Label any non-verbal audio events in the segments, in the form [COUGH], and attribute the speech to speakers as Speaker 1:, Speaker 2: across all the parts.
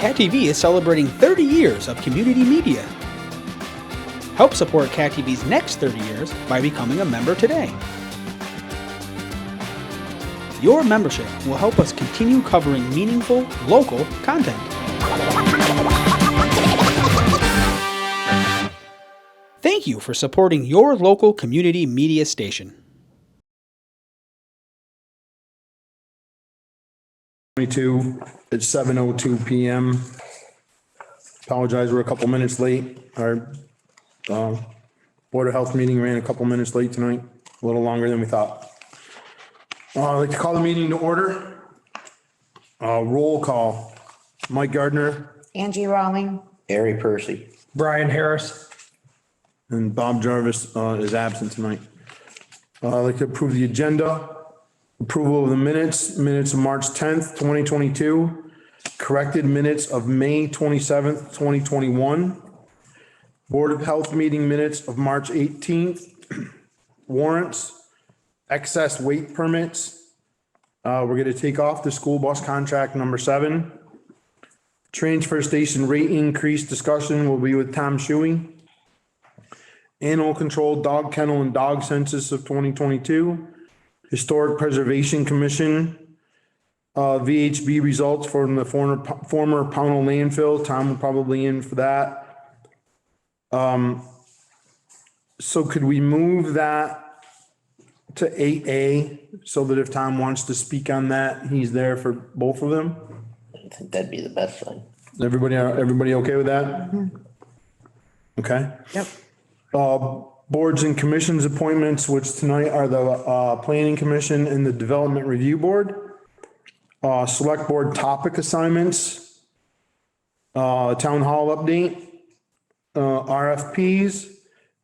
Speaker 1: Cat TV is celebrating 30 years of community media. Help support Cat TV's next 30 years by becoming a member today. Your membership will help us continue covering meaningful, local content. Thank you for supporting your local community media station.
Speaker 2: 22 at 7:02 PM. Apologize, we're a couple minutes late. Our uh, Board of Health meeting ran a couple minutes late tonight, a little longer than we thought. Uh, I'd like to call the meeting to order. Uh, Roll call. Mike Gardner
Speaker 3: Angie Rawling,
Speaker 4: Harry Percy.
Speaker 5: Brian Harris.
Speaker 2: and Bob Jarvis uh, is absent tonight. Uh, I'd like to approve the agenda. Approval of the minutes, minutes of March 10th, 2022, corrected minutes of May 27th, 2021, Board of Health meeting minutes of March 18th, [CLEARS THROAT] warrants, excess weight permits. Uh, We're going to take off the school bus contract number seven. Transfer station rate increase discussion will be with Tom Shuey. Animal control, dog kennel and dog census of 2022. Historic Preservation Commission, uh, VHB results from the former, former Pownell landfill. Tom will probably in for that. Um, so could we move that to eight A so that if Tom wants to speak on that, he's there for both of them?
Speaker 4: I think that'd be the best thing.
Speaker 2: Everybody, everybody okay with that? Okay. Yep. Uh, boards and commissions appointments, which tonight are the, uh, planning commission and the development review board. Uh, select board topic assignments. Uh, town hall update. Uh, RFPs,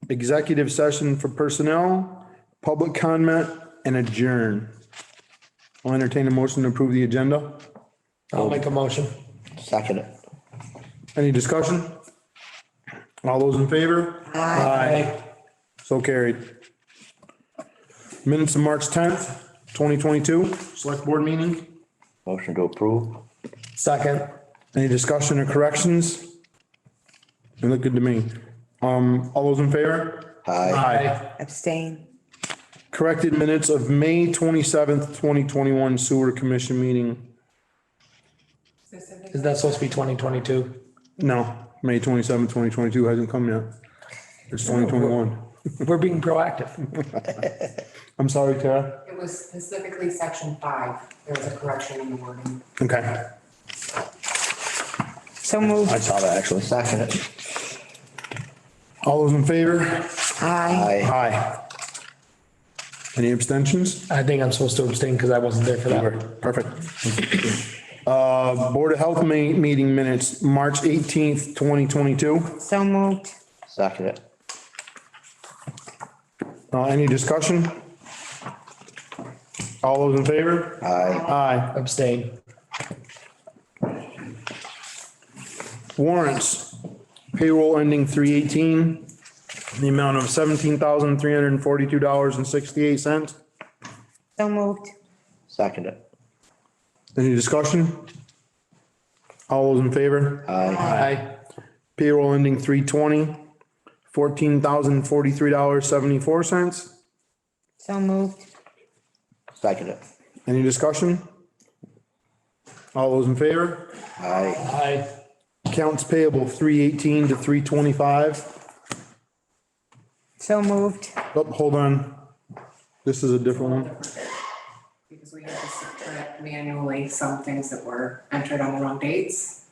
Speaker 2: executive session for personnel, public comment and adjourn. I'll entertain a motion to approve the agenda.
Speaker 5: I'll make a motion.
Speaker 4: Second it.
Speaker 2: Any discussion? All those in favor? Aye. So carried. Minutes of March tenth, twenty twenty-two, select board meeting.
Speaker 4: Motion to approve.
Speaker 2: Second. Any discussion or corrections? They look good to me. Um, all those in favor?
Speaker 4: Aye.
Speaker 2: Aye.
Speaker 3: abstain.
Speaker 2: Corrected minutes of May twenty-seventh, twenty twenty-one sewer commission meeting.
Speaker 5: Is that supposed to be 2022?
Speaker 2: No, May twenty-seventh, twenty twenty-two hasn't come yet. It's twenty twenty-one.
Speaker 5: We're being proactive.
Speaker 2: I'm sorry, Tara.
Speaker 6: It was specifically section five. There was a correction in the wording.
Speaker 2: Okay.
Speaker 3: So moved.
Speaker 4: I saw that actually. Second it.
Speaker 2: All those in favor?
Speaker 3: Aye.
Speaker 4: Aye.
Speaker 2: Aye. Any abstentions?
Speaker 5: I think I'm supposed to abstain because I wasn't there for that.
Speaker 2: Perfect. Uh, Board of Health ma- meeting minutes, March eighteenth, twenty twenty-two.
Speaker 3: So moved.
Speaker 4: Second it.
Speaker 2: Uh, any discussion? All those in favor?
Speaker 4: Aye.
Speaker 2: Aye.
Speaker 5: Abstain.
Speaker 2: Warrants, payroll ending three eighteen, the amount of seventeen thousand, three hundred and forty-two dollars and sixty-eight cents.
Speaker 3: So moved.
Speaker 4: Second it.
Speaker 2: Any discussion? All those in favor?
Speaker 4: Aye.
Speaker 5: Aye.
Speaker 2: Payroll ending three twenty, fourteen thousand forty-three dollars seventy-four cents.
Speaker 3: So moved.
Speaker 4: Second it.
Speaker 2: Any discussion? All those in favor?
Speaker 4: Aye.
Speaker 5: Aye.
Speaker 2: Accounts payable three eighteen to three twenty-five.
Speaker 3: So moved.
Speaker 2: Oh, hold on. This is a different one.
Speaker 6: Because we had to subtract manually some things that were entered on the wrong dates.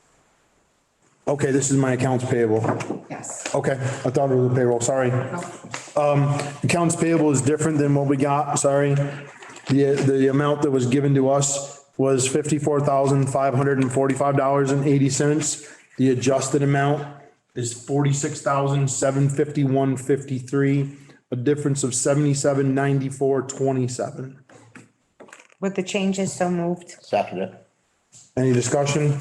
Speaker 2: Okay, this is my accounts payable.
Speaker 6: Yes.
Speaker 2: Okay, I thought it was a payroll, sorry.
Speaker 6: No.
Speaker 2: Accounts payable is different than what we got, sorry. The, the amount that was given to us was fifty-four thousand, five hundred and forty-five dollars and eighty cents. The adjusted amount is forty-six thousand, seven fifty-one, fifty-three, a difference of seventy-seven, ninety-four, twenty-seven.
Speaker 3: With the changes, so moved.
Speaker 4: Second it.
Speaker 2: Any discussion?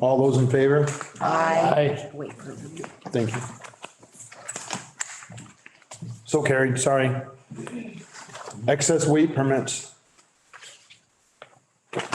Speaker 2: All those in favor?
Speaker 3: Aye.
Speaker 5: Aye.
Speaker 3: Wait, wait, wait.
Speaker 2: Thank you. So carried, sorry. Excess weight permits.